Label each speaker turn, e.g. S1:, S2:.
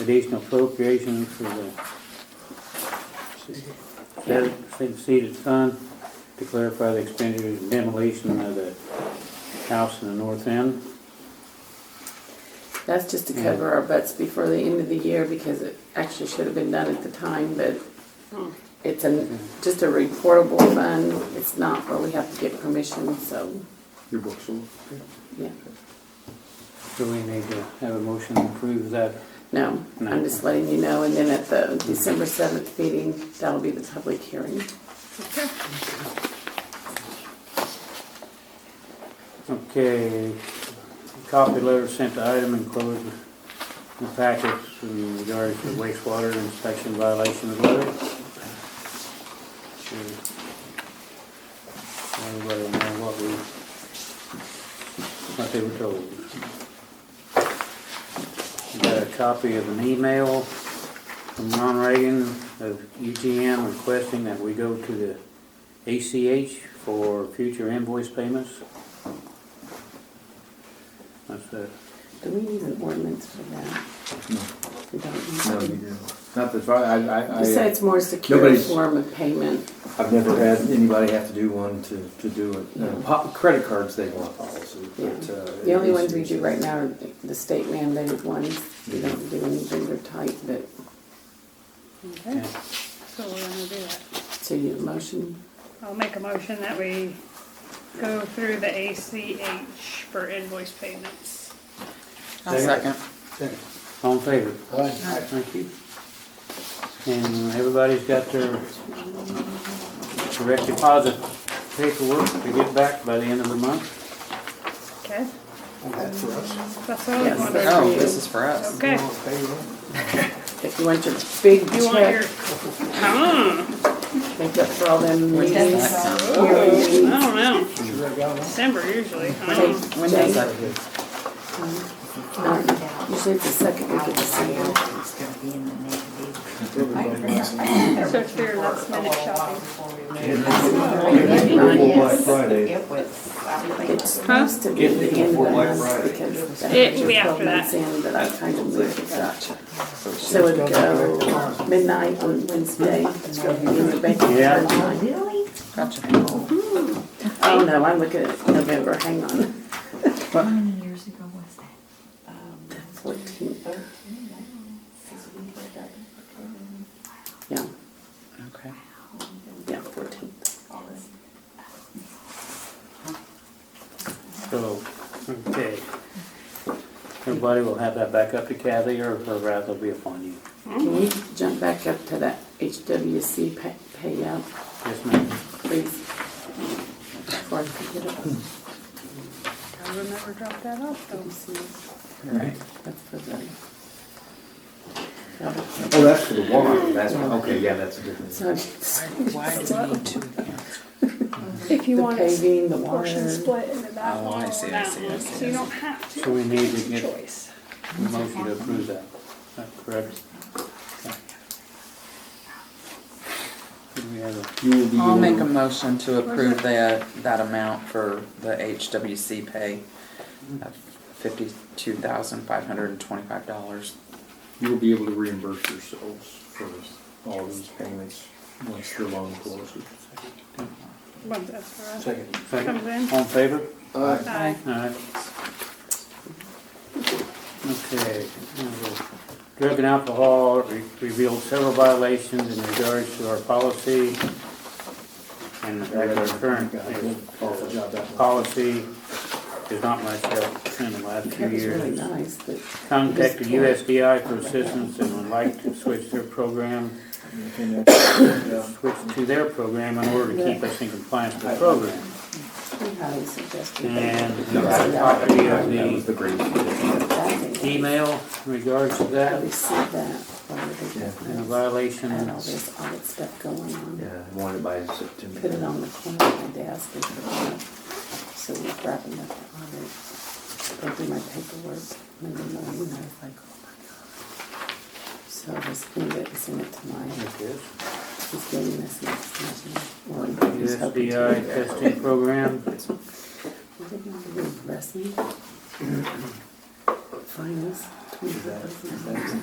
S1: additional appropriation for the state seated fund to clarify the expenditure and demolition of the house in the north end.
S2: That's just
S3: Mm.
S2: to cover our butts before the end of the year because it actually should have been done at the time, but it's a, just a reportable fund. It's not where we have to get permission, so,
S3: Your books will.
S2: yeah.
S1: So we need to have a motion to approve that.
S2: No, I'm just letting you know. And then at the December seventh meeting, that'll be the public hearing.
S1: Okay, copy letter sent to item enclosed in the packets in regards to wastewater inspection violation of letter. Sure. Everybody will know what we, what they were told. Got a copy of an email from Ron Reagan of UTM requesting that we go to the ACH for future invoice payments. That's it.
S2: Do we need an ordinance for that?
S3: No.
S2: We don't.
S3: No,
S2: need
S3: you
S2: one.
S3: don't. Not that far, I, I, I,
S2: You said
S3: uh,
S2: it's more secure
S3: Nobody's-
S2: form of payment.
S3: I've never had anybody have to do one to, to do it. No, po- Credit cards, they want policy, but.
S2: Yeah.
S3: uh,
S2: The only
S3: it's-
S2: ones we do right now are the- the state mandated ones. We don't do any vendor type, but,
S1: Yeah.
S4: Okay, so we're gonna do that.
S2: so you motion,
S4: I'll make a motion that we go through the ACH for invoice payments.
S5: I'll second.
S6: Second.
S1: All in favor?
S6: Aye.
S1: Thank you. And everybody's got their direct deposit paperwork to get back by the end of the month.
S4: Okay,
S6: That's for us.
S4: that's all I
S2: Yes.
S4: wanted.
S5: Oh, this is for us.
S4: Okay,
S6: We'll pay them.
S2: if you want your big
S4: you want your,
S2: check,
S4: Hmm,
S2: make up for all them
S5: Which is
S2: meetings.
S5: next time.
S2: hearings.
S4: I don't know,
S6: Sure, I got them.
S4: December usually, I
S2: They-
S4: don't know.
S2: When
S5: Yes,
S2: they,
S5: I-
S2: um, usually it's the second week of December.
S7: It's gonna be in the negative.
S6: Everybody wants them.
S4: So for your last minute shopping.
S3: Black Friday.
S7: It was, I would think,
S2: It's supposed to be
S3: Get
S2: the
S3: it
S2: end of
S3: before
S2: the
S3: Black
S2: month
S3: Friday.
S2: because that's
S4: It will be
S2: twelve
S4: after
S2: months
S4: that.
S2: in, but I kind of moved it up. So it'd go midnight on Wednesday, it's going to be in the bank.
S1: Yeah.
S7: really?
S5: Gotcha.
S2: Oh, no, I'm looking at November, hang on.
S7: How many years ago was that?
S2: Fourteenth, yeah,
S5: Okay.
S2: yeah, fourteenth.
S1: So, okay. Everybody will have that back up to Kathy or her wrath will be upon you.
S2: Can we jump back up to that HWC pay- payout,
S1: Yes, ma'am.
S2: please? Before I forget it.
S4: I would never drop that off though.
S5: Right.
S2: That's for the.
S3: Oh, that's for the water, that's, okay, yeah, that's a different.
S2: So,
S5: Why do we need two accounts?
S4: If you
S2: the
S4: want it
S2: paving, the
S4: portion
S2: water,
S4: split into that
S5: Oh, I
S4: one or
S5: see, I
S4: that
S5: see, I
S4: one,
S5: see,
S4: so
S5: I
S4: you
S5: see.
S4: don't have to.
S1: So we need to get-
S4: Choice.
S1: Motion to approve that. Is that correct? Okay. Do we have a-
S3: You will be.
S5: I'll
S3: the
S5: make a
S3: one-
S5: motion to approve that, that amount for the HWC pay of fifty-two thousand five hundred and twenty-five dollars.
S3: You will be able to reimburse yourselves for all these payments once the loan closes.
S4: Once that's for us,
S3: Second.
S4: comes
S1: Second,
S4: in.
S1: all in favor?
S3: Aye.
S4: Aye.
S1: Alright. Okay. now we'll- Drug and alcohol re- revealed several violations in regards to our policy and our current
S3: Awful job that one.
S1: policy is not much help in the last few
S2: that was really
S1: years.
S2: nice, but
S1: Contacted USDI for assistance and would like to switch their program,
S3: And that's- yeah.
S1: switch to their program in order to keep us in compliance with the program.
S2: we highly suggest you.
S1: And
S2: think
S1: the copy of the
S3: the great.
S2: that they
S1: email in regards to that.
S2: Receive that, whatever they
S1: And a
S2: get.
S1: violation,
S2: And all
S1: and
S2: this audit stuff going on.
S3: Yeah, I wanted by
S2: Put it
S3: September.
S2: on the corner of my desk and put it up. So we're wrapping up the audit. Go do my paperwork, Monday morning, and I was like, oh my God. So I just scanned it and sent it to my, he's getting this next meeting. Or he's hoping to.
S1: USDI testing program.
S2: I didn't know they were wrestling. Finals, 25th.